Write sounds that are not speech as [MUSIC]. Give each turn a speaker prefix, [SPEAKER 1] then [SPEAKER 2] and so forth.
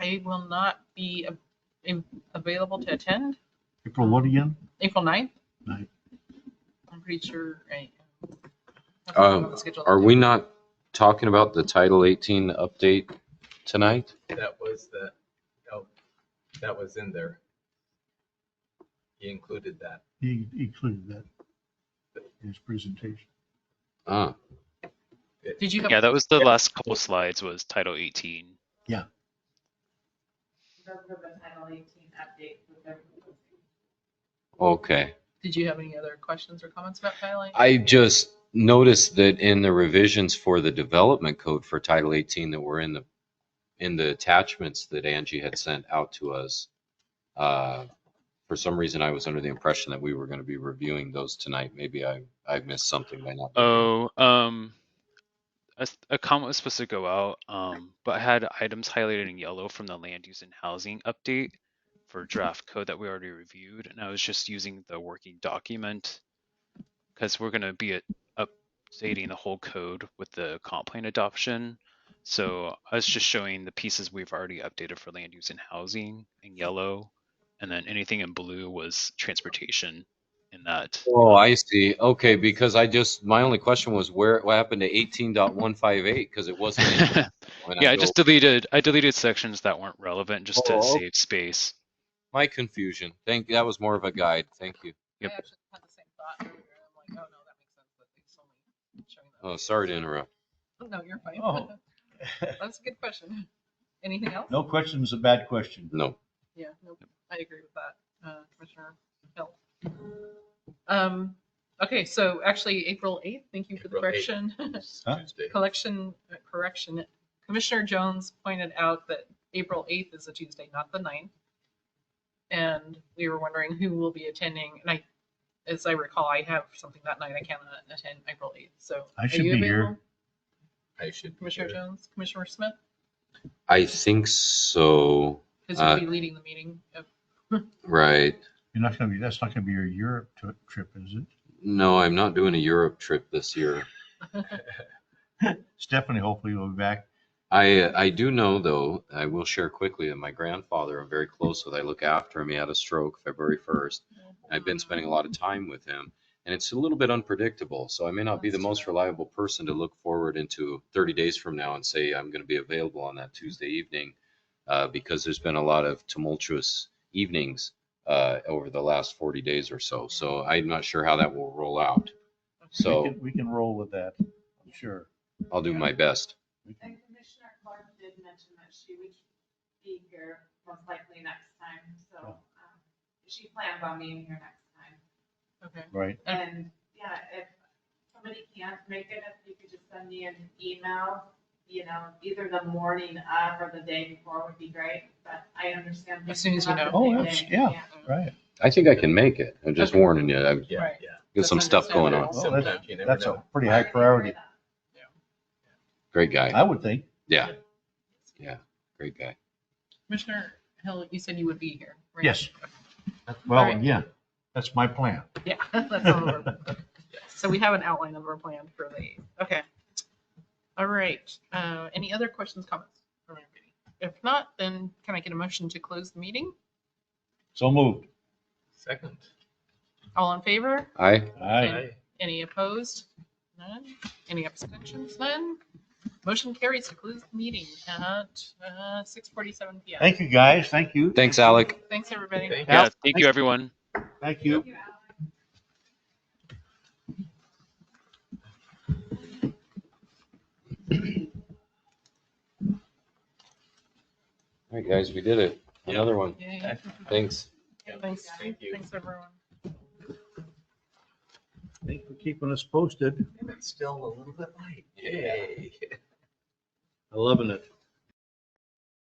[SPEAKER 1] I will not be a- in- available to attend
[SPEAKER 2] April what again?
[SPEAKER 1] April 9th.
[SPEAKER 2] Ninth.
[SPEAKER 1] I'm pretty sure I. have
[SPEAKER 3] Um,
[SPEAKER 1] on the schedule.
[SPEAKER 3] Are we not talking about the Title 18 update tonight?
[SPEAKER 4] That was the, oh, that was in there. He included that.
[SPEAKER 2] He he included that in his presentation.
[SPEAKER 3] Ah,
[SPEAKER 1] Did you have?
[SPEAKER 5] Yeah, that was the last couple slides was Title 18.
[SPEAKER 3] okay.
[SPEAKER 1] Did you have any other questions or comments about tiling?
[SPEAKER 3] I just noticed that in the revisions for the development code for Title 18 that were in the, in the attachments that Angie had sent out to us. uh, For some reason, I was under the impression that we were going to be reviewing those tonight. Maybe I, I missed something by not.
[SPEAKER 5] Oh, um, a, s- a comment was supposed to go out, um, but I had items highlighted in yellow from the land use and housing update for draft code that we already reviewed, and I was just using the working document because we're gonna be at- updating the whole code with the comp plan adoption. So I was just showing the pieces we've already updated for land use and housing in yellow, and then anything in blue was transportation in that. [LAUGHS]
[SPEAKER 3] Oh, I see. Okay, because I just, my only question was where, what happened to 18.158? Because it wasn't.
[SPEAKER 5] [LAUGHS]
[SPEAKER 3] in there when
[SPEAKER 5] Yeah, I
[SPEAKER 3] go-
[SPEAKER 5] just deleted I deleted sections that weren't relevant just
[SPEAKER 3] Oh,
[SPEAKER 5] to
[SPEAKER 3] okay.
[SPEAKER 5] save space.
[SPEAKER 3] My confusion. Thank, that was more of a guide. Thank you.
[SPEAKER 1] I
[SPEAKER 5] Yep.
[SPEAKER 1] actually had the same thought. earlier, and I'm like, oh, no, that makes sense, but it's only showing that.
[SPEAKER 3] Oh, sorry to interrupt.
[SPEAKER 1] No, you're fine.
[SPEAKER 2] Oh.
[SPEAKER 1] [LAUGHS] That's a good question. Anything else?
[SPEAKER 2] No question's a bad question.
[SPEAKER 3] No.
[SPEAKER 1] Yeah, nope, I agree with that, uh, Commissioner Hill. Um, okay, so actually, April 8th, thank you for the
[SPEAKER 4] April
[SPEAKER 1] correction.
[SPEAKER 4] 8th.
[SPEAKER 1] [LAUGHS]
[SPEAKER 2] Huh?
[SPEAKER 4] Tuesday.
[SPEAKER 1] Collection, uh, correction, Commissioner Jones pointed out that April 8th is a Tuesday, not the 9th. And we were wondering who will be attending, and I, as I recall, I have something that night, I cannot attend April 8th, so.
[SPEAKER 2] I
[SPEAKER 1] are
[SPEAKER 2] should
[SPEAKER 1] you
[SPEAKER 2] be here.
[SPEAKER 1] available,
[SPEAKER 4] I should. be
[SPEAKER 1] Commissioner
[SPEAKER 4] here.
[SPEAKER 1] Jones, Commissioner Smith,
[SPEAKER 3] I think so.
[SPEAKER 1] because you'll
[SPEAKER 3] Uh,
[SPEAKER 1] be leading the meeting of
[SPEAKER 3] Right.
[SPEAKER 2] You're not gonna be, that's not gonna be your Europe tri- trip, is it?
[SPEAKER 3] No, I'm not doing a Europe trip this year.
[SPEAKER 2] Stephanie hopefully will be back.
[SPEAKER 3] I, I do know though, I will share quickly that my grandfather, I'm very close with. I look after him. He had a stroke February 1st. I've been spending a lot of time with him and it's a little bit unpredictable. So I may not be the
[SPEAKER 1] That's
[SPEAKER 3] most
[SPEAKER 1] true.
[SPEAKER 3] reliable person to look forward into 30 days from now and say, I'm going to be available on that Tuesday evening. Uh, because there's been a lot of tumultuous evenings, uh, over the last 40 days or so. So I'm not sure how that will roll out.
[SPEAKER 2] We
[SPEAKER 3] So-
[SPEAKER 2] can- We can roll with that, I'm sure.
[SPEAKER 3] I'll do my best.
[SPEAKER 2] We can-
[SPEAKER 6] And Commissioner Clark did mention that she would be here most likely next time, so
[SPEAKER 2] Oh.
[SPEAKER 6] um, she plans on being here next time.
[SPEAKER 1] Okay,
[SPEAKER 2] Right,
[SPEAKER 6] And, yeah, if somebody can't make it, if you could just send me an email, you know, either the morning of or the day before would be great, but I understand.
[SPEAKER 1] As soon as we
[SPEAKER 6] we
[SPEAKER 1] know.
[SPEAKER 2] Oh, that's- yeah. right.
[SPEAKER 3] I think I can make it. I'm just
[SPEAKER 1] Okay.
[SPEAKER 3] warning you. I've
[SPEAKER 4] Yeah,
[SPEAKER 1] Right.
[SPEAKER 4] yeah.
[SPEAKER 3] got some stuff going on.
[SPEAKER 2] Well,
[SPEAKER 4] Sometimes
[SPEAKER 2] that's-
[SPEAKER 4] you never
[SPEAKER 2] That's a
[SPEAKER 4] know.
[SPEAKER 2] pretty high priority,
[SPEAKER 6] uh,
[SPEAKER 3] Great guy.
[SPEAKER 2] I would think.
[SPEAKER 3] Yeah. Yeah. Great guy.
[SPEAKER 1] Commissioner Hill, you said you would be here, right?
[SPEAKER 2] Yes.
[SPEAKER 1] All
[SPEAKER 2] Well,
[SPEAKER 1] right.
[SPEAKER 2] yeah, that's my plan.
[SPEAKER 1] Yeah, [LAUGHS] that's all we're, so we have an outline of our plan for the, eighth. okay. All right, uh, any other questions, comments from everybody? If not, then can I get a motion to close the meeting?
[SPEAKER 2] So moved.
[SPEAKER 4] Second.
[SPEAKER 1] All in favor?
[SPEAKER 3] Aye.
[SPEAKER 2] Aye.
[SPEAKER 4] Aye.
[SPEAKER 1] Any opposed? None? Any abstentions? None? Motion carries to close the meeting at, uh, six forty-seven PM.
[SPEAKER 2] Thank you, guys. Thank you.
[SPEAKER 3] Thanks, Alec.
[SPEAKER 1] Thanks, everybody.
[SPEAKER 4] Thank
[SPEAKER 5] Yeah,
[SPEAKER 2] Yeah,
[SPEAKER 5] thank you everyone.
[SPEAKER 2] Thank you.
[SPEAKER 3] All right, guys, we did it. Another one.
[SPEAKER 1] Yeah,
[SPEAKER 3] Thanks.
[SPEAKER 1] Thanks,
[SPEAKER 4] Thank you.
[SPEAKER 1] thanks, everyone.
[SPEAKER 2] Thanks for keeping us posted.
[SPEAKER 4] And it's still a little bit light.
[SPEAKER 3] Yeah.
[SPEAKER 4] Yay.
[SPEAKER 2] I'm Loving it.